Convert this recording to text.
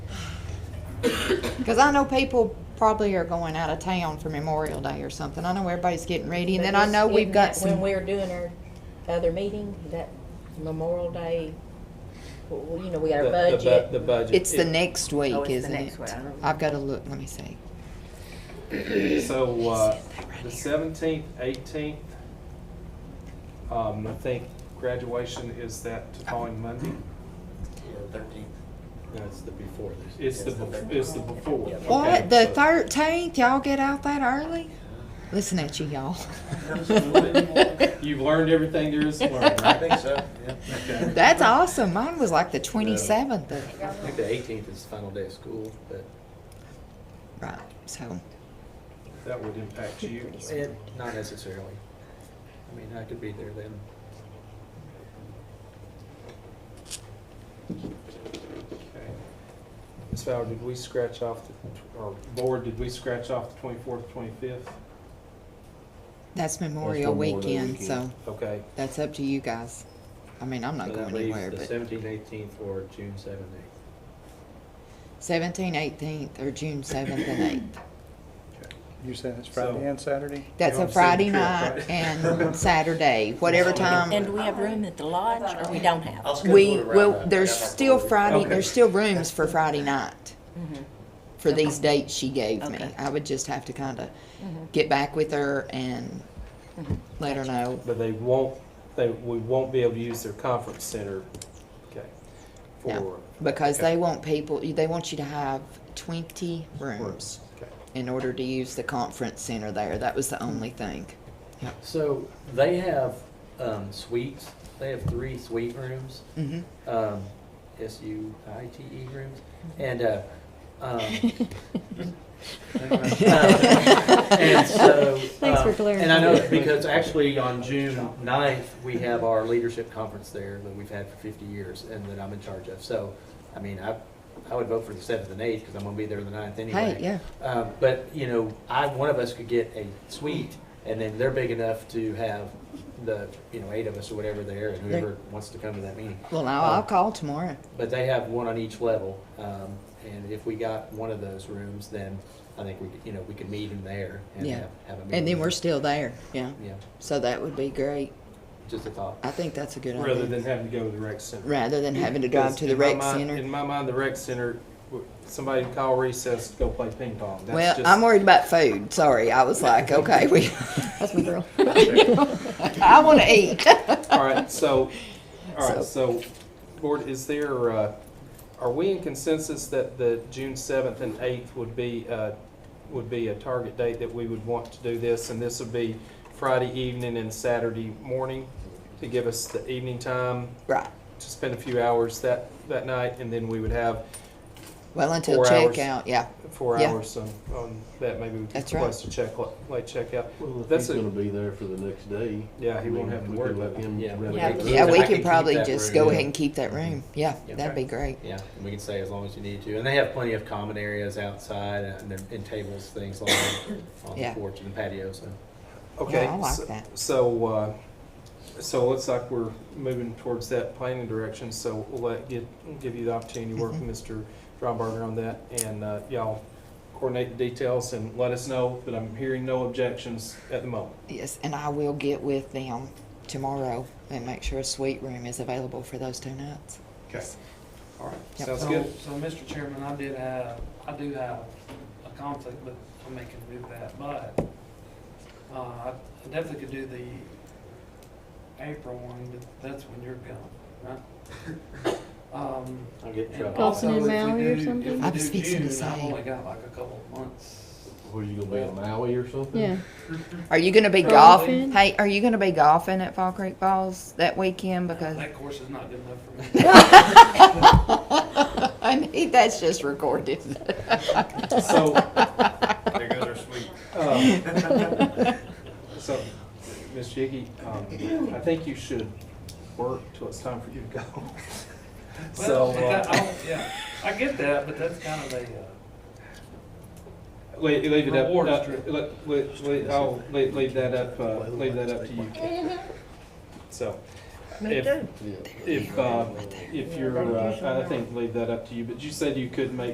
Because I know people probably are going out of town for Memorial Day or something. I know everybody's getting ready, and then I But know isn't we've that got When some. we were doing our other meeting, that Memorial Day, well, well, you know, we got The- our the bu- budget. The budget. It's the It- next week, Oh, it's the isn't next it? week. I don't remember. I've got to look. Let me see. So, uh, that right the here. seventeenth, eighteenth, um, I think graduation is that following Monday? Thirteenth. No, it's the before this. It's the, bef- it's the before. Yeah. Okay, What the so- thirteenth? Y'all get out that early? Listen at you, y'all. You've learned everything there is to learn, I right? think so, yeah. Okay. That's awesome. Mine was like the twenty-seventh of I think the eighteenth is the final day of school, but right. So That would impact you. eh, not necessarily. I mean, I could be there then. Okay. Ms. Fowler, did we scratch off, the tw- or board, did we scratch off the twenty-fourth, twenty-fifth? that's Memorial Memorial Weekend. Weekend. So Okay, that's up to you guys. I mean, I'm not So that going leaves anywhere, The but seventeenth, eighteenth, or June seventh, eighth. seventeenth, eighteenth, or June seventh and eighth. You said it's So- Friday and Saturday? That's You're a on Friday Saturday, night right? and Saturday, whatever And do time. we have room at the lodge, or we don't have? I'll schedule We, it around well, that. there's I got my still board. Friday, Okay. there's still rooms for Friday night, Mm-hmm. Mhm. for these dates she gave me. Okay. I would just have to kinda Mm-hmm. Mhm. get back with her and Mhm. let her know. but they won't, they, we won't be able to use their conference center, okay, No, for. Because okay, they want people, they want you to have twenty rooms Okay. in order to use the conference center there. That was the only thing. Mm-hmm. So they have, um, suites, they have three suite rooms, Mhm. um, S U I T E rooms, and, uh, um, And so, Thanks for um, And I know, because actually on June 9th, we have our leadership conference there that we've had for 50 years and that I'm in charge of. So, I mean, I, I would vote for the 7th and 8th because I'm going to be there the 9th anyway. Hey, yeah. Um, But, you know, I, one of us could get a suite and then they're big enough to have the, you know, eight of us or whatever there and whoever wants to come to that meeting. Well, now I'll Oh. call tomorrow. But they have one on each level, um, and if we got one of those rooms, then I think we, could- you know, we could meet in there and Yeah. have, have a meeting. And then we're still there, yeah. Yeah, So that would be great. just a thought. I think that's a good idea. Rather than having to go to the rec center. rather than having to drive to the In my rec mind- center. In my mind, the rec center, w- somebody can call recess to go play ping pong. That's Well, just- I'm worried about food. Sorry, I was like, okay, we. That's my girl. I want to eat. All right, so, all right, so, board, is there, uh, are we in consensus that the June seventh and eighth would be, uh, would be a target date that we would want to do this? And this would be Friday evening and Saturday morning to give us the evening time Right. to spend a few hours that, that night? And then we would have Well, until Four hours. checkout, yeah. four Yeah. hours on, on that, maybe we could That's right. request a check, late checkout. Well, if That's he's a- gonna be there for the next day. Yeah, he I mean, won't have to we worry could let about it. him Yeah. rent Yeah. it out. Yeah, I we can can keep probably that just room. go ahead and keep that room. Yeah, Yeah. that'd be great. Yeah, and we can say as long as you need to, and they have plenty of common areas outside uh, and there- and tables, things like that on the Yeah. porch and the patio, so. Okay. Yeah, I like so- that. So, uh, so it looks like we're moving towards that planning direction, so we'll let, get, give you the opportunity to work Mm-hmm. with Mr. Drombarger on that, and, uh, y'all coordinate the details and let us know, but I'm hearing no objections at the moment. Yes, and I will get with them tomorrow and make sure a suite room is available for those two nights. Okay. All right, Yep. sounds So, good. So, Mr. Chairman, I did have, I do have a conflict, but I'm making do that, but, uh, I definitely could do the April one, but that's when you're gone, right? Um, I'll get in and trouble. Golfing also, in if we Maui or do- something? I If was we do fixing to June, I've say. only got like a couple of months. Were you gonna be on Maui or something? Yeah. Are you gonna be Golfing? golfing? Hey, are you gonna be golfing at Fall Creek Falls that weekend? Because That course is not good enough for me. I need, that's just recorded. So, There goes our sweet. um, so, Ms. Jiggy, um, I think you should work till it's time for you to go. So, Well, that- uh, I don't- Yeah, I get that, but that's kind of a, uh, Leave, leave it up. Reward uh, strip. le- le- le- I'll leave, leave that up, uh, leave that up to you. Kate. So, if, Yeah. uh, if, uh, if you're, uh, I think leave that up to you, but you said you could make